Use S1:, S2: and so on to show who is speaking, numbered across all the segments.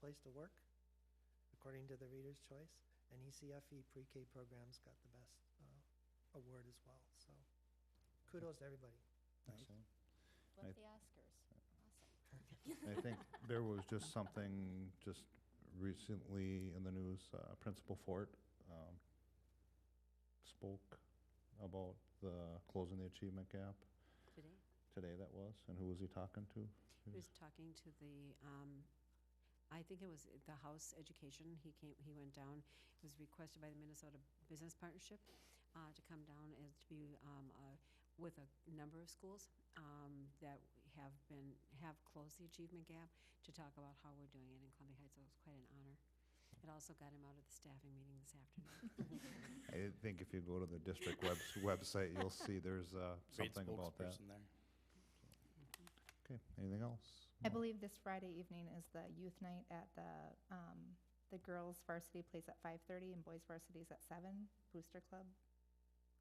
S1: place to work, according to the Reader's Choice, and E ECFE pre-K programs got the best uh, award as well, so kudos to everybody.
S2: Excellent. I-
S3: Love the Oscars. Awesome.
S2: I think there was just something just recently in the news, uh, Principal Fort um, spoke about the closing the achievement gap
S4: Today,
S2: today that was, and who was he talking to?
S4: he was talking to the, um, I think it was the House Education, he came, he went down, it was requested by the Minnesota Business Partnership uh, to come down and to be um, uh, with a number of schools um, that have been, have closed the achievement gap, to talk about how we're doing it in Columbia Heights, so it was quite an honor. It also got him out of the staffing meeting this afternoon.
S2: I think if you go to the district webs- website, you'll see there's uh,
S5: Great
S2: something about that.
S5: spokesperson there.
S2: Okay, anything else?
S6: I
S2: No.
S6: believe this Friday evening is the youth night at the, um, the girls varsity plays at five thirty and boys varsity is at seven, Booster Club.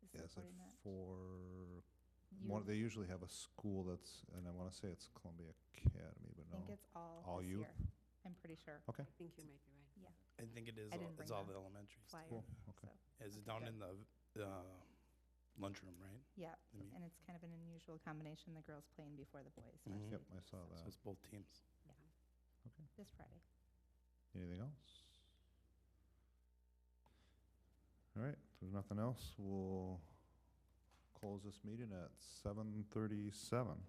S6: is
S2: Yeah, it's at
S6: supporting that.
S2: four,
S6: Youth.
S2: one, they usually have a school that's, and I want to say it's Columbia Academy, but no.
S6: I think it's
S2: uh,
S6: all
S2: all
S6: this
S2: youth?
S6: year. I'm pretty sure.
S2: Okay,
S4: I think you might be right.
S5: I
S6: Yeah,
S5: think it is,
S6: I
S5: all-
S6: didn't
S5: it's
S6: bring
S5: all
S6: the
S5: the elementary stuff.
S6: flyer.
S2: cool, okay.
S6: So,
S5: Is it
S6: Okay,
S5: down
S6: good.
S5: in the uh, lunchroom, right?
S6: yeah,
S5: I mean-
S6: and it's kind of an unusual combination, the girls playing before the boys
S5: Mhm.
S2: Mm-hmm. Yep, I saw
S5: So
S2: that.
S5: it's both teams.
S2: Okay.
S6: this Friday.
S2: Anything else? All right, if there's nothing else, we'll close this meeting at seven thirty-seven.